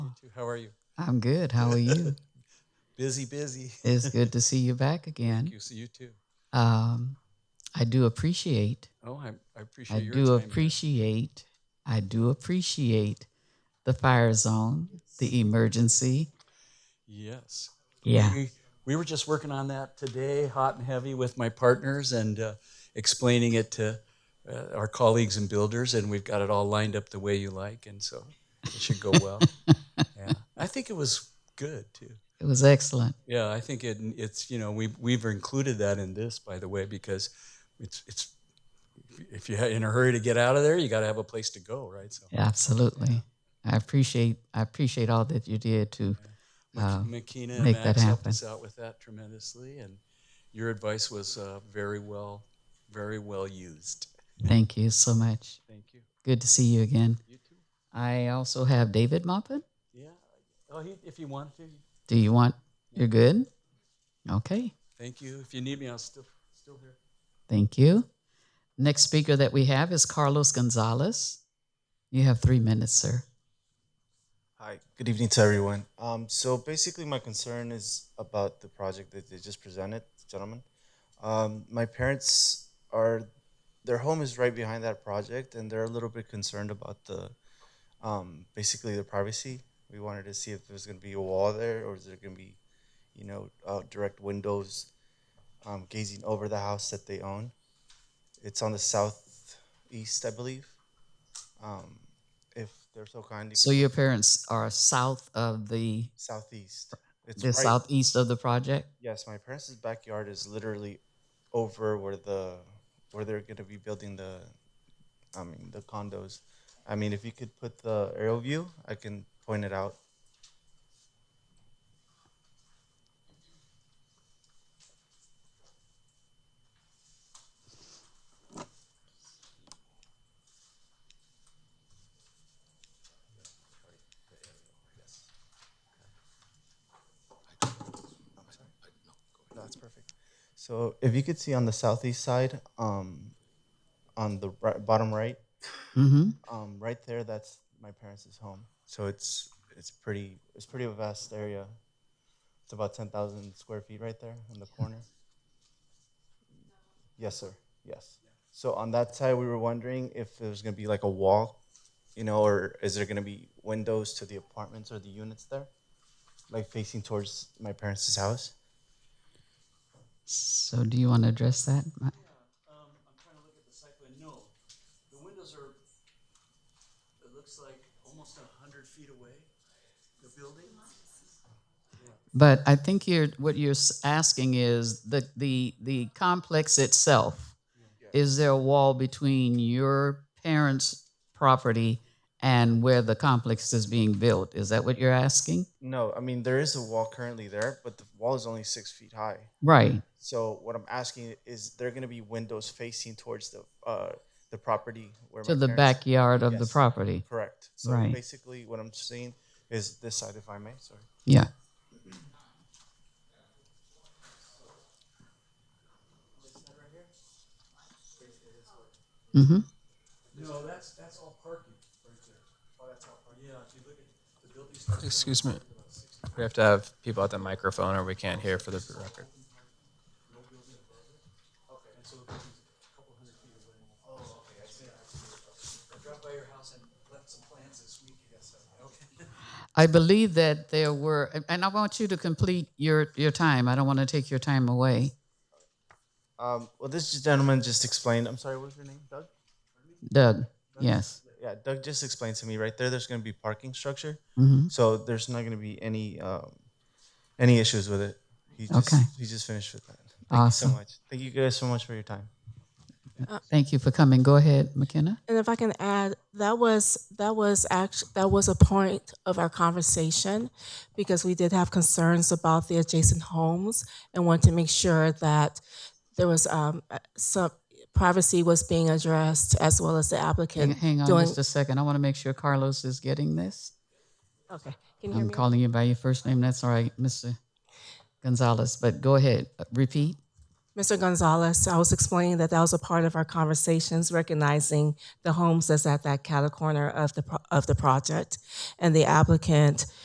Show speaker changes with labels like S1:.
S1: How are you?
S2: I'm good. How are you?
S1: Busy, busy.
S2: It's good to see you back again.
S1: You see you too.
S2: Um, I do appreciate.
S1: Oh, I, I appreciate
S2: I
S1: your
S2: do
S1: time here.
S2: appreciate. I do appreciate the fire zone, the emergency.
S1: Yes.
S2: Yeah.
S1: We, we were just working on that today, hot and heavy, with my partners and uh, explaining it to uh, our colleagues and builders, and we've got it all lined up the way you like, and so it should go well. yeah, I think it was good too.
S2: It was excellent.
S1: Yeah, I think it, it's you know we we've included that in this by the way because it's it's if you're in a hurry to get out of there, you got to have a place to go, right? So
S2: Absolutely. I appreciate I appreciate all that you did to uh,
S1: Makina and
S2: make that
S1: Max helped
S2: happen.
S1: us out with that tremendously, and your advice was uh, very well, very well used.
S2: thank you so much.
S1: Thank you.
S2: Good to see you again.
S1: You too.
S2: I also have David Moppin.
S1: Yeah. Oh, he, if you want to.
S2: Do you want you're good? Okay.
S1: Thank you. If you need me, I'm still still here.
S2: Thank you. Next speaker that we have is Carlos Gonzalez. You have three minutes, sir.
S3: Hi, good evening to everyone. Um, so basically, my concern is about the project that they just presented, gentlemen. Um, my parents are, their home is right behind that project, and they're a little bit concerned about the, um, basically the privacy. We wanted to see if there's going to be a wall there, or is there going to be, you know, uh, direct windows, um, gazing over the house that they own. It's on the southeast, I believe. Um, if they're so kind.
S2: So your parents are south of the
S3: southeast. It's
S2: the
S3: right.
S2: southeast of the project.
S3: Yes, my parents' backyard is literally over where the where they're gonna be building the, I mean the condos. I mean, if you could put the aerial view, I can point it out. That's perfect. So if you could see on the southeast side, um, on the right, bottom right,
S2: Mm-hmm.
S3: um, right there, that's my parents' home. So it's it's pretty it's pretty a vast area. It's about ten thousand square feet right there in the corner. Yes, sir. Yes. So on that side, we were wondering if there was gonna be like a wall, you know, or is there gonna be windows to the apartments or the units there, like facing towards my parents' house?
S2: So do you want to address that? Ma-
S1: Um, I'm trying to look at the site plan. No, the windows are. It looks like almost a hundred feet away. The building.
S2: But I think you're what you're s- asking is the the the complex itself. Is there a wall between your parents' property and where the complex is being built? Is that what you're asking?
S3: No, I mean there is a wall currently there, but the wall is only six feet high.
S2: Right.
S3: So what I'm asking is, there going to be windows facing towards the uh, the property where
S2: To
S3: my
S2: the
S3: parents-
S2: backyard of the
S3: Yes.
S2: property.
S3: Correct. So
S2: Right.
S3: basically, what I'm seeing is this side, if I may. Sorry.
S2: Yeah. Mm-hmm.
S1: No, that's that's all parking right there. Oh, that's all parking. Yeah, if you look at the building. starts-
S4: Excuse me. We have to have people at the microphone or we can't hear for the record.
S1: Drop by your house and left some plans this week. Yes, okay.
S2: I believe that there were, and- and I want you to complete your, your time. I don't want to take your time away.
S3: Um, well, this gentleman just explained. I'm sorry. What was your name, Doug?
S2: Doug, yes.
S3: Yeah, Doug just explained to me right there. There's going to be parking structure,
S2: Mhm.
S3: so there's not going to be any um, any issues with it. He just,
S2: Okay.
S3: He just finished with that. Thank
S2: Awesome.
S3: you so much. Thank you guys so much for your time.
S2: Thank you for coming. Go ahead, McKenna.
S5: And if I can add, that was that was act that was a point of our conversation because we did have concerns about the adjacent homes and wanted to make sure that there was um, uh, some privacy was being addressed as well as the
S2: Hang-
S5: applicant
S2: Hang on
S5: doing.
S2: just a second. I want to make sure Carlos is getting this.
S5: Okay, can you hear
S2: I'm
S5: me?
S2: calling you by your first name. That's all right, Mr. Gonzalez, but go ahead. Uh, Repeat.
S5: Mr. Gonzalez, I was explaining that that was a part of our conversations, recognizing the homes that's at that catty corner of the, pro- of the project. And the applicant